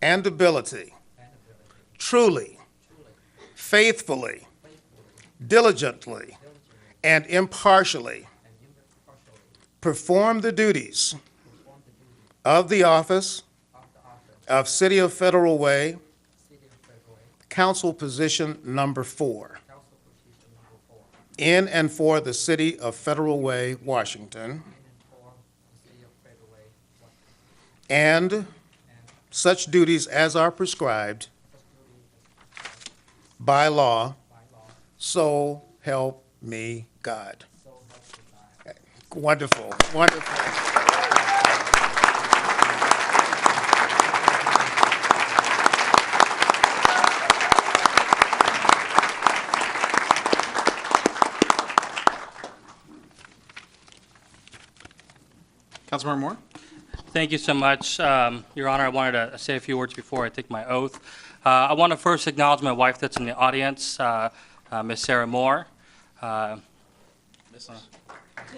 and ability truly, faithfully, diligently, and impartially perform the duties of the office of City of Federal Way, Council Position Number Four, in and for the City of Federal Way, Washington, and such duties as are prescribed by law, so help me God. Wonderful, wonderful. Councilmember Moore? Thank you so much, um, Your Honor. I wanted to say a few words before I take my oath. Uh, I want to first acknowledge my wife that's in the audience, uh, uh, Ms. Sarah Moore. uh,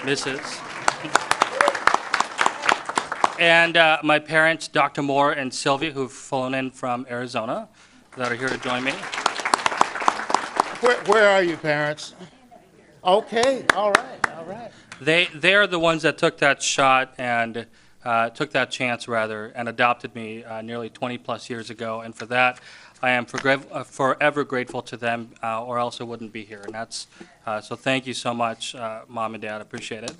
Mrs. And uh, my parents, Dr. Moore and Sylvia, who've flown in from Arizona, that are here to join me. Where, where are you, parents? Okay, all right, all right. They, they're the ones that took that shot and uh, took that chance, rather, and adopted me uh, nearly 20-plus years ago. And for that, I am forgra- uh, forever grateful to them, uh, or else I wouldn't be here. And that's, uh, so thank you so much, uh, Mom and Dad, I appreciate it.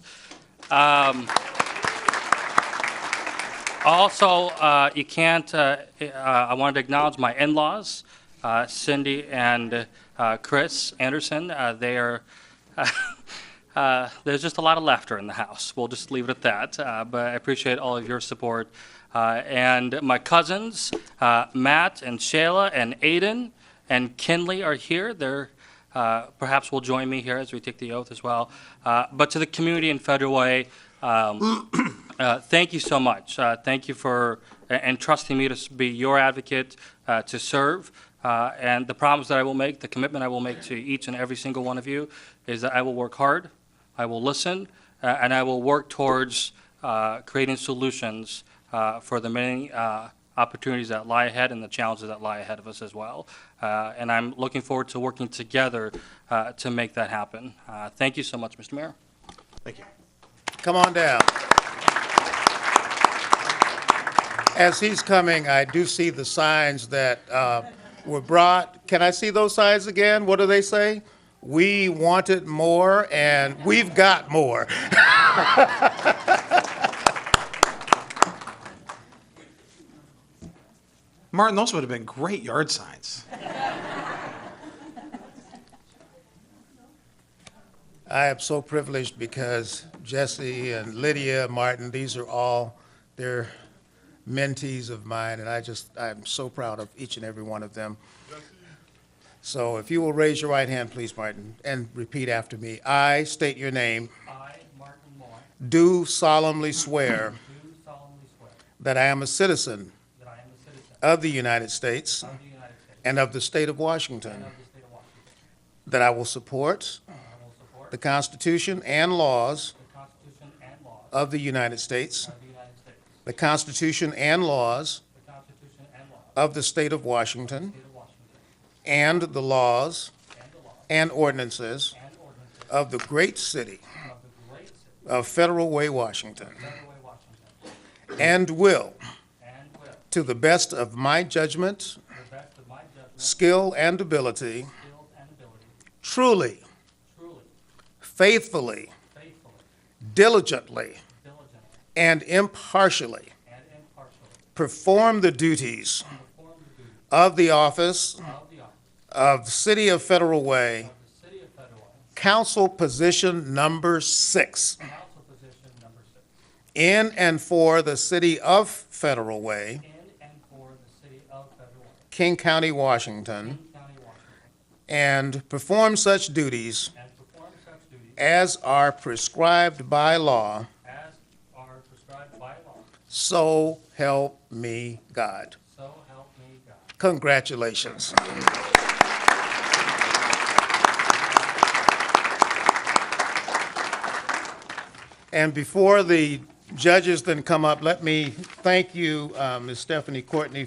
Um, Also, uh, you can't, uh, uh, I wanted to acknowledge my in-laws, uh, Cindy and uh, Chris Anderson. Uh, They are, uh, there's just a lot of laughter in the house. We'll just leave it at that. Uh, But I appreciate all of your support. Uh, And my cousins, uh, Matt and Shayla and Aiden and Kinley are here. They're uh, perhaps will join me here as we take the oath as well. Uh, But to the community in Federal Way, um, uh, thank you so much. Uh, Thank you for a- entrusting me to s- be your advocate, uh, to serve. Uh, And the promise that I will make, the commitment I will make to each and every single one of you is that I will work hard, I will listen, uh, and I will work towards uh, creating solutions uh, for the many uh, opportunities that lie ahead and the challenges that lie ahead of us as well. Uh, And I'm looking forward to working together uh, to make that happen. Uh, Thank you so much, Mr. Mayor. Thank you. Come on down. As he's coming, I do see the signs that uh, were brought. Can I see those signs again? What do they say? We wanted more, and we've got more. Martin, those would have been great yard signs. I am so privileged because Jesse and Lydia Martin, these are all, they're mentees of mine, and I just, I'm so proud of each and every one of them. So if you will raise your right hand, please, Martin, and repeat after me. I state your name, I, Martin Moore, do solemnly swear do solemnly swear that I am a citizen that I am a citizen of the United States of the United States and of the state of Washington, and of the state of Washington, that I will support and I will support the Constitution and laws the Constitution and laws of the United States, of the United States, the Constitution and laws the Constitution and laws of the state of Washington of the state of Washington, and the laws and the laws and ordinances and ordinances of the great city of the great city of Federal Way, Washington, of Federal Way, Washington, and will, and will, to to the best of my judgment, the best of my judgment, skill, and ability, skill, and ability, truly, truly, faithfully, faithfully, diligently, diligently, and impartially and impartially perform the duties perform the duties of the office of the office of City of Federal Way, of the city of Federal Way, Council Position Number Six, council position number six, in and for the City of Federal Way, in and for the city of Federal Way, King County, Washington, King County, Washington, and perform such duties and perform such duties as are prescribed by law, as are prescribed by law. so help me God. So help me God. Congratulations. And before the judges then come up, let me thank you, uh, Ms. Stephanie Courtney,